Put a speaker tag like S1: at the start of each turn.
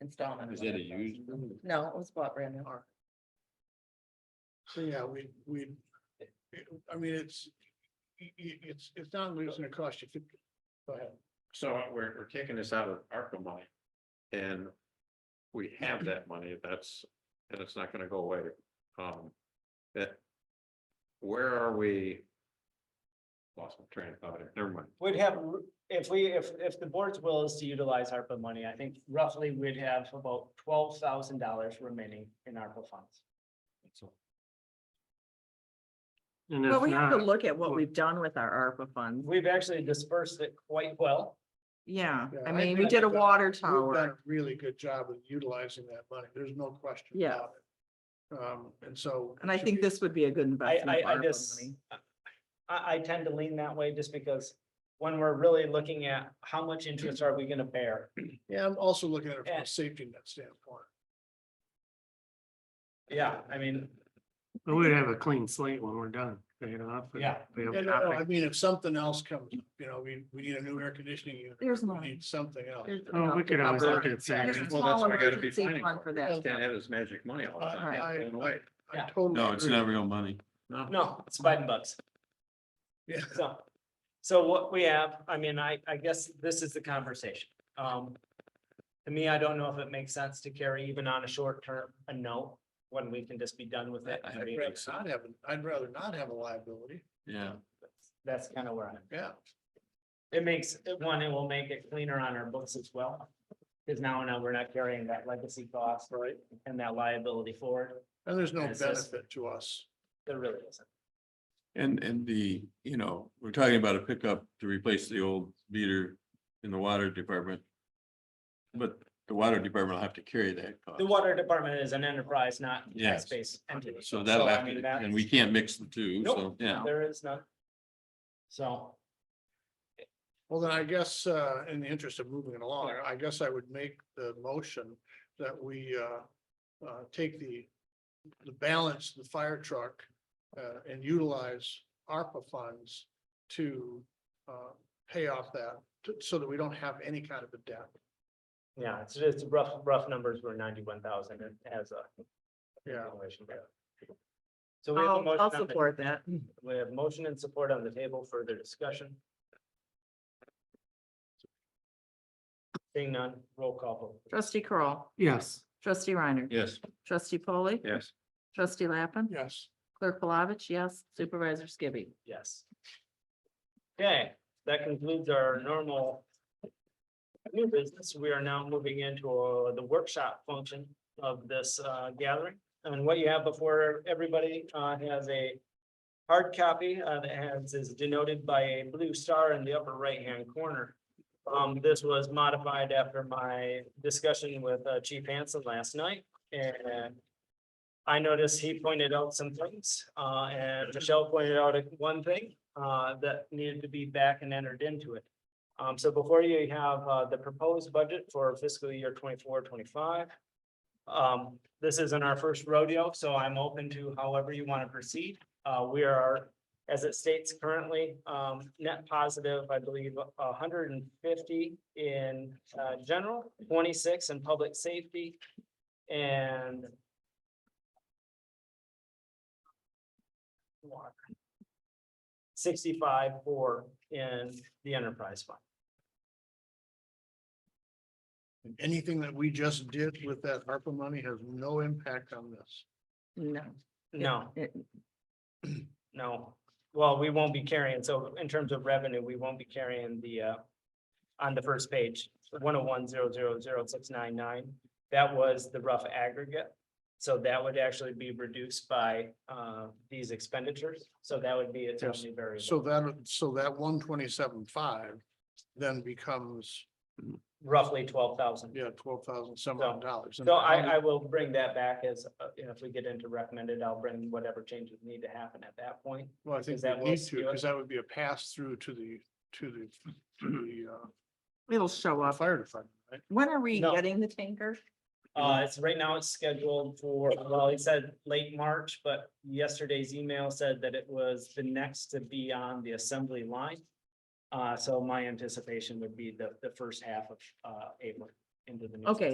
S1: installment.
S2: Is it a used? one?
S1: No, it was bought brand new.
S3: So, yeah, we, we, I mean, it's, i- i- it's, it's not losing a cost. You could- Go ahead.
S2: So we're, we're taking this out of ARPA money. And we have that money, that's, and it's not gonna go away. Um, that. Where are we? Lost my train of thought, here. never mind.
S4: Would have, if we, if, if the board's will is to utilize ARPA money, I think roughly we'd have about twelve thousand dollars remaining in ARPA funds.
S5: And
S1: But
S5: if
S1: we have to
S5: not,
S1: look at what we've done with our ARPA funds.
S4: We've actually dispersed it quite well.
S1: Yeah,
S3: Yeah,
S1: I
S3: I
S1: mean, we
S3: think
S1: did a
S3: that
S1: water
S3: We've done
S1: tower.
S3: a really good job of utilizing that money. There's no question
S1: Yeah.
S3: about it. Um, and so.
S1: And I think this would be a good
S4: I,
S1: investment. of
S4: I, I
S1: ARPA
S4: just,
S1: money.
S4: I, I tend to lean that way just because when we're really looking at how much interest are we gonna bear?
S3: Yeah, I'm also looking at it from
S4: Yeah.
S3: a safety net standpoint.
S4: Yeah, I mean,
S5: we would have a clean slate when we're done, pay it off. and
S4: Yeah.
S5: we have
S3: Yeah, no, no, uh, I
S5: nothing.
S3: mean, if something else comes, up, you know, we, we need a new air conditioning unit.
S1: There's
S3: we
S1: money.
S3: Need something else.
S1: There's
S5: Oh, we
S1: enough.
S5: could always look at
S1: There's
S5: savings.
S1: a
S2: Well, that's
S1: small
S2: why I gotta be
S1: emergency
S2: planning
S1: fund
S2: for
S1: for
S2: it.
S1: that.
S2: Can't have this magic money all the
S3: I, I,
S2: time.
S3: I- I
S4: Yeah.
S3: totally.
S6: No, it's
S3: agree.
S6: not real money.
S2: No.
S4: no, it's Biden bucks.
S3: Yeah.
S4: So, so what we have, I mean, I, I guess this is the conversation. Um, to me, I don't know if it makes sense to carry even on a short term, a no, when we can just be done with it. I
S3: I'd
S4: mean,
S3: rather not have, an- I'd rather not have a liability.
S6: Yeah.
S4: That's kind of where I'm,
S3: Yeah.
S4: it makes, one, it will make it cleaner on our books as well. Cause now, now we're not carrying that legacy cost
S3: Right.
S4: and that liability forward.
S3: And there's no
S4: It's just-
S3: benefit to us.
S4: There really isn't.
S6: And, and the, you know, we're talking about a pickup to replace the old meter in the water department. But the water department will have to carry that cost.
S4: The water department is an enterprise, not
S6: Yes.
S4: tax-based entity.
S6: So that'll
S4: I
S6: have
S4: mean,
S6: to,
S4: that's-
S6: and we can't mix the two, so,
S4: Nope.
S6: yeah.
S4: There is none. So,
S3: Well, then I guess, uh, in the interest of moving it along, I guess I would make the motion that we, uh, uh, take the, the balance, of the fire truck, uh, and utilize ARPA funds to, uh, pay off that, to- so that we don't have any kind of a debt.
S4: yeah, it's just rough, rough numbers were ninety-one thousand as a.
S3: Yeah.
S4: valuation, but- So we have a
S1: I'll,
S4: motion.
S1: I'll
S4: on the-
S1: support that.
S4: We have motion and support on the table, further discussion. Seeing none, roll call vote.
S1: Trustee Crawl,
S5: Yes.
S1: trustee Reiner,
S2: Yes,
S1: trustee Polly,
S2: yes.
S1: trustee Lappin,
S3: Yes.
S1: clerk Palovich, yes, supervisor Skibby.
S4: Yes. Okay, that concludes our normal. New business, we are now moving into uh, the workshop function of this uh, gathering. And what you have before everybody uh, has a hard copy uh, that has is denoted by a blue star in the upper right-hand corner. Um, This was modified after my discussion with uh, Chief Hanson last night and I noticed he pointed out some things, uh, and Michelle pointed out one thing, uh, that needed to be back and entered into it. Um, so before you you have, uh, the proposed budget for fiscal year 24-25. Um, this isn't our first rodeo, so I'm open to however you want to proceed. Uh, we are, as it states currently, um, net positive, I believe, hundred and fifty in, uh, general, twenty-six in public safety. And water. Sixty-five for in the enterprise fund.
S3: Anything that we just did with that ARPA money has no impact on this.
S1: No.
S4: No,
S1: It-
S4: no. Well, we won't be carrying, so in terms of revenue, we won't be carrying the uh. On the first page, one oh one zero zero zero six nine nine, that was the rough aggregate. So that would actually be reduced by uh these expenditures, so that would be its
S3: Yes.
S4: only variable.
S3: So that, so that one twenty-seven five then becomes,
S4: Roughly twelve thousand.
S3: yeah, twelve thousand some odd dollars.
S4: So I, I will bring that back as, uh, you know, if we get into recommended, I'll bring whatever changes need to happen at that point.
S3: Well, I think
S4: Because that
S3: we
S4: will
S3: need to,
S4: skew it.
S3: because that would be a pass through to the, to the, to
S1: It'll show
S3: the, uh,
S1: up.
S3: fire department, right?
S1: When are we
S4: No.
S1: getting the tanker?
S4: Uh, it's right now it's scheduled for, well, he said late March, but yesterday's email said that it was the next to be on the assembly line. Uh, so my anticipation would be the, the first half of, uh, April into the. new
S1: Okay,